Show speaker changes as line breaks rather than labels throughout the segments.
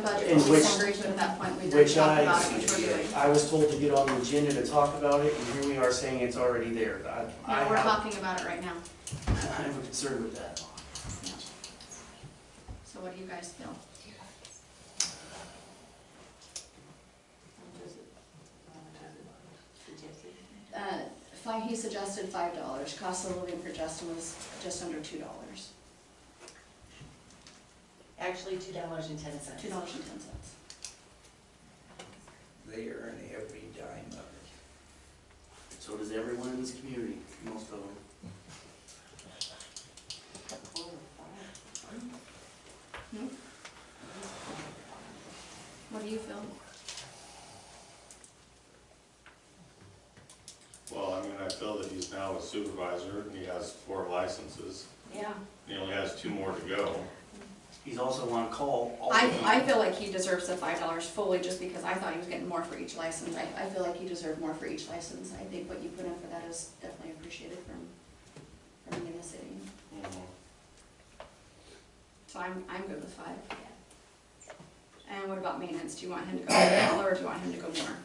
Which-
disagree to it at that point, we did
Which
talk
I,
about it, which we're doing.
I was told to get on the agenda to talk about it, and here we are saying it's already there. I, I
No, we're
have,
talking about it right now.
I'm concerned with that.
Yeah. So what do you guys feel? Uh, five, he suggested five dollars, cost of living for Justin was just under two dollars,
Actually, two dollars and ten cents.
two dollars and ten cents.
They earn every dime of it.
So does everyone in this community, most of them.
What do you feel?
Well, I mean, I feel that he's now a supervisor, and he has four licenses,
Yeah.
he only has two more to go.
He's also on call all the
I,
time.
I feel like he deserves the five dollars fully, just because I thought he was getting more for each license, I, I feel like he deserved more for each license, I think what you put in for that is definitely appreciated from, from being in the city.
Mhm.
So I'm, I'm good with five. And what about maintenance? Do you want him to go with a dollar or do you want him to go more?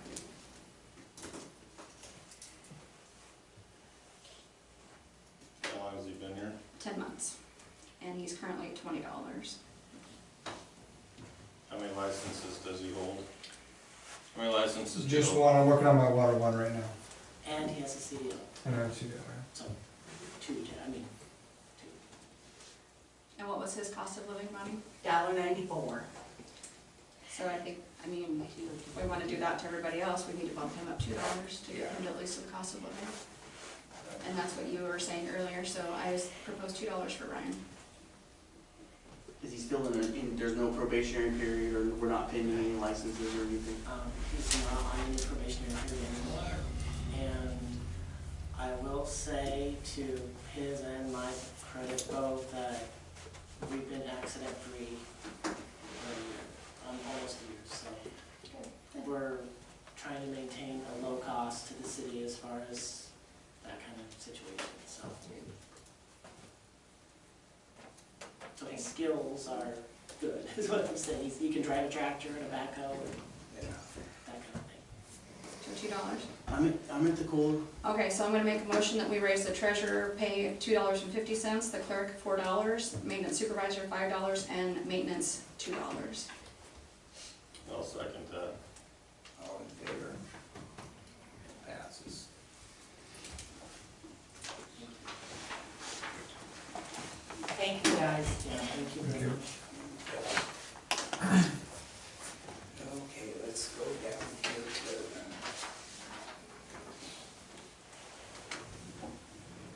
How long has he been here?
Ten months. And he's currently at twenty dollars.
How many licenses does he hold? How many licenses do you
Just
hold?
one, I'm working on my water one right now,
And he has a CDL,
and I'm two down
so two, I mean, two.
And what was his cost of living money?
Dollar ninety-four.
So I think, I mean, if we want to do that to everybody else, we need to bump him up two dollars to get him to at least the cost of living. And that's what you were saying earlier, so I just proposed two dollars for Ryan.
Is he still in, a- in, there's no probationary period, or we're not pending any licenses or anything?
Um, he's not on any probationary period anymore. And I will say to his and my credit both that we've been accident-free for a year, um, almost a year, so. We're trying to maintain a low cost to the city as far as that kind of situation, so. So his skills are good, is what I'm saying. He's- He can drive a tractor and a backhoe and that kind of thing.
So two dollars.
I'm, at I'm at the call,
Okay, so I'm gonna make a motion that we raise the treasurer pay two dollars and fifty cents, the clerk four dollars, maintenance supervisor five dollars, and maintenance two dollars.
I'll second that.
All in favor? Passes.
Thank you, guys. Yeah, thank you very much.
Okay, let's go down here to.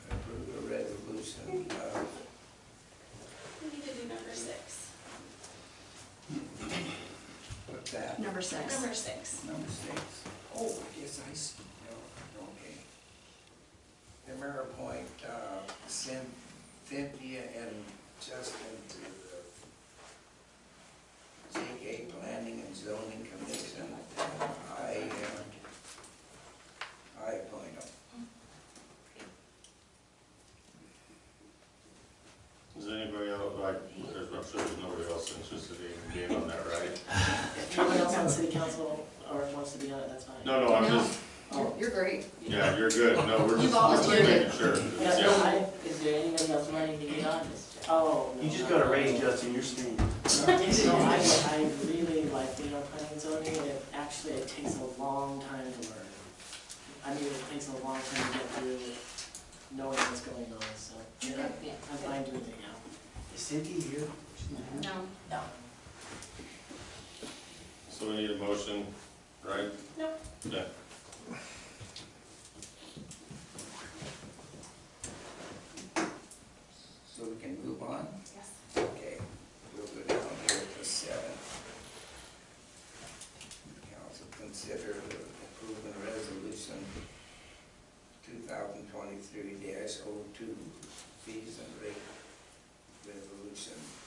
uh, Approve a resolution of
We need to do number six.
what's that,
Number six.
six.
number six. Oh, I guess I see, no, okay. The mayor appoint uh, Cyn- Cynthia and Justin to the JK Planning and Zoning Commission. I, uh, I appoint them.
Is anybody else, like, there's, I'm sure there's nobody else interested in being on that, right?
If no one else on city council or wants to be on it, that's fine.
No, no, I'm just,
You're- You're great.
yeah, you're good, no, we're
You've
just,
always
we're just
been good.
making sure.
Yeah,
Yeah.
no, I- Is there anybody else wanting to be on this? Oh, no.
you just
no,
got a
no.
raise, Justin, you're staying.
No, I, I really like the planning and zoning, and it actually, it takes a long time to learn. I mean, it takes a long time to get through knowing what's going on, so, yeah, I'm fine doing it now.
Is Cynthia here?
No.
So we need a motion, right?
No.
Yeah.
So we can move on?
Yes.
Okay, we'll go down here to seven. Council consider approving resolution two thousand twenty-three dash oh two fees and rate resolution